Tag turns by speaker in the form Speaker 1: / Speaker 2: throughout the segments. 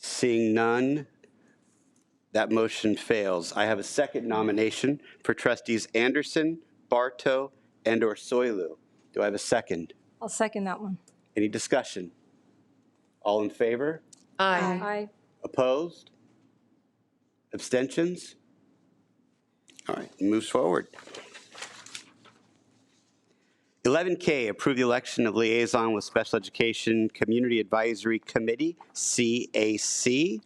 Speaker 1: Seeing none, that motion fails. I have a second nomination for trustees Anderson, Barto, and/or Soilu. Do I have a second?
Speaker 2: I'll second that one.
Speaker 1: Any discussion? All in favor?
Speaker 3: Aye.
Speaker 2: Aye.
Speaker 1: Opposed? Abstentions? All right, moves forward. 11K, approve the election of liaison with Special Education Community Advisory Committee, CAC.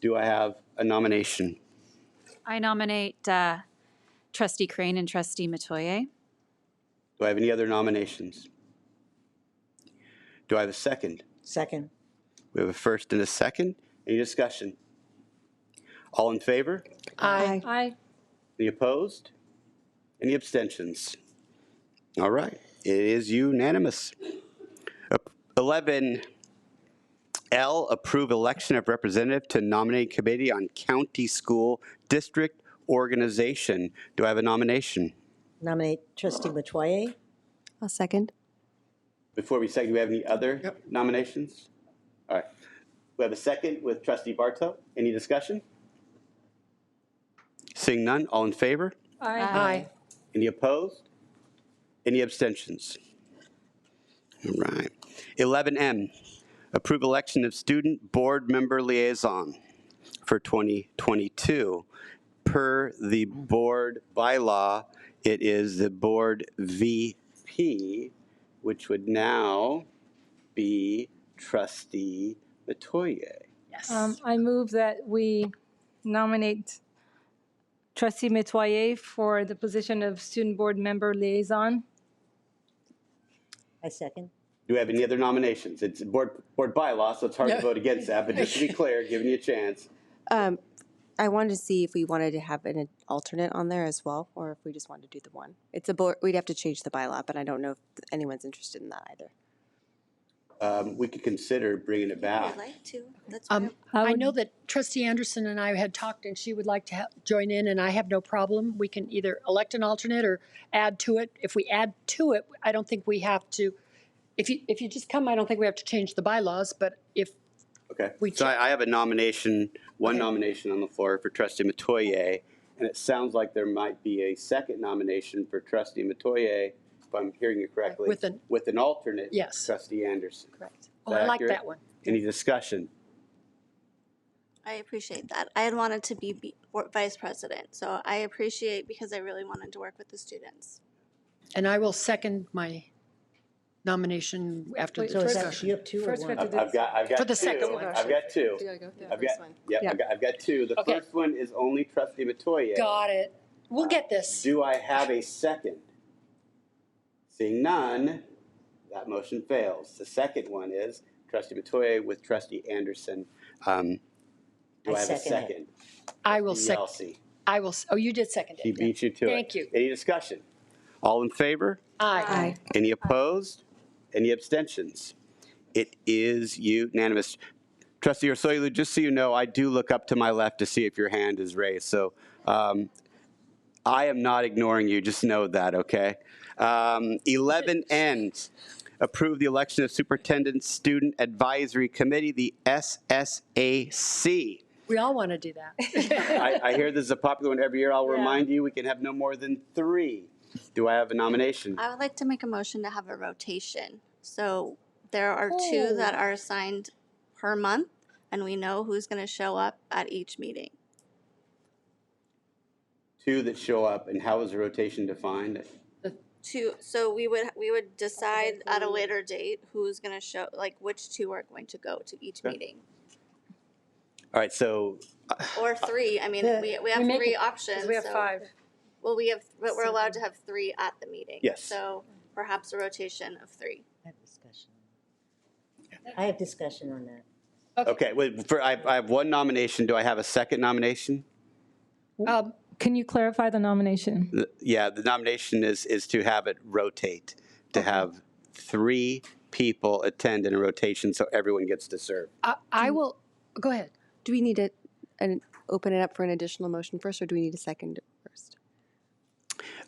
Speaker 1: Do I have a nomination?
Speaker 3: I nominate uh, trustee Crane and trustee Metoyer.
Speaker 1: Do I have any other nominations? Do I have a second?
Speaker 4: Second.
Speaker 1: We have a first and a second. Any discussion? All in favor?
Speaker 4: Aye.
Speaker 2: Aye.
Speaker 1: Any opposed? Any abstentions? All right, it is unanimous. Ap- 11L, approve election of representative to nominating committee on county school district organization. Do I have a nomination?
Speaker 4: Nominate trustee Metoyer.
Speaker 5: I'll second.
Speaker 1: Before we second, do we have any other nominations? All right, we have a second with trustee Barto. Any discussion? Seeing none, all in favor?
Speaker 2: Aye.
Speaker 1: Any opposed? Any abstentions? All right. 11M, approve election of student board member liaison for 2022. Per the board bylaw, it is the board VP, which would now be trustee Metoyer.
Speaker 2: Um, I move that we nominate trustee Metoyer for the position of student board member liaison.
Speaker 4: I second.
Speaker 1: Do we have any other nominations? It's board, board bylaw, so it's hard to vote against that, but just to be clear, giving you a chance.
Speaker 5: Um, I wanted to see if we wanted to have an alternate on there as well, or if we just wanted to do the one. It's a board, we'd have to change the bylaw, but I don't know if anyone's interested in that either.
Speaker 1: um, we could consider bringing it back.
Speaker 5: like to.
Speaker 6: Um,
Speaker 2: I
Speaker 6: I
Speaker 2: would-
Speaker 6: know that trustee Anderson and I had talked and she would like to ha- join in and I have no problem. We can either elect an alternate or add to it. If we add to it, I don't think we have to, if you, if you just come, I don't think we have to change the bylaws, but if,
Speaker 1: Okay.
Speaker 6: We
Speaker 1: So I, I have a nomination, one nomination on the floor for trustee Metoyer, and it sounds like there might be a second nomination for trustee Metoyer, if I'm hearing you correctly.
Speaker 6: With an-
Speaker 1: With an alternate.
Speaker 6: Yes.
Speaker 1: Trustee Anderson.
Speaker 6: correct. Oh, I like
Speaker 1: accurate?
Speaker 6: that one.
Speaker 1: Any discussion?
Speaker 7: I appreciate that. I had wanted to be be- or- vice president, so I appreciate because I really wanted to work with the students.
Speaker 6: And I will second my nomination after
Speaker 2: Wait,
Speaker 6: the
Speaker 2: so is that
Speaker 4: You
Speaker 6: discussion.
Speaker 4: have two or
Speaker 2: First we have
Speaker 4: one?
Speaker 1: I've
Speaker 2: to do.
Speaker 1: I've got, I've got
Speaker 6: For
Speaker 1: two.
Speaker 6: the second one.
Speaker 1: I've got two.
Speaker 5: go through
Speaker 1: I've got, yeah, I've got, I've got two. The
Speaker 6: Okay.
Speaker 1: first one is only trustee Metoyer.
Speaker 6: Got it. We'll get this.
Speaker 1: Do I have a second? Seeing none, that motion fails. The second one is trustee Matoye with trustee Anderson. Um, Do I
Speaker 4: I
Speaker 1: have a
Speaker 4: second it.
Speaker 1: second?
Speaker 6: I will second,
Speaker 1: Yelsey,
Speaker 6: I will, s- oh, you did second
Speaker 1: he
Speaker 6: it.
Speaker 1: beat you to it.
Speaker 6: Thank you.
Speaker 1: Any discussion? All in favor?
Speaker 6: Aye.
Speaker 1: Any opposed? Any abstentions? It is unanimous. Trustee Ursulou, just so you know, I do look up to my left to see if your hand is raised, so um, I am not ignoring you, just know that, okay? Um, 11N, approve the election of Superintendent Student Advisory Committee, the SSAC.
Speaker 6: We all want to do that.
Speaker 1: I I hear this is a popular one every year. I'll remind you, we can have no more than three. Do I have a nomination?
Speaker 7: I would like to make a motion to have a rotation. So there are two that are assigned per month, and we know who's going to show up at each meeting.
Speaker 1: Two that show up, and how is the rotation defined?
Speaker 7: Two, so we would we would decide at a later date who's going to show, like which two are going to go to each
Speaker 1: Okay.
Speaker 7: meeting
Speaker 1: All right, so
Speaker 7: or three. I mean, we we have
Speaker 6: make
Speaker 7: three
Speaker 6: it-
Speaker 7: options.
Speaker 2: We have
Speaker 7: so-
Speaker 2: five.
Speaker 7: Well, we have, but we're allowed to have three at the meeting.
Speaker 1: Yes.
Speaker 7: So perhaps a rotation of three.
Speaker 4: I have discussion. I have discussion on that.
Speaker 1: Okay, wait, for, I, I have one nomination. Do I have a second nomination?
Speaker 6: Um,
Speaker 2: Can you clarify the nomination?
Speaker 1: Th- Yeah, the nomination is, is to have it rotate, to have three people attend in a rotation so everyone gets to serve.
Speaker 6: I- I will, go ahead.
Speaker 5: Do we need to, and open it up for an additional motion first, or do we need a second first?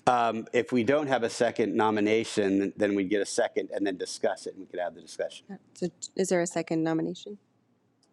Speaker 1: Um, if we don't have a second nomination, then we'd get a second and then discuss it and we could have the discussion.
Speaker 5: So is there a second nomination?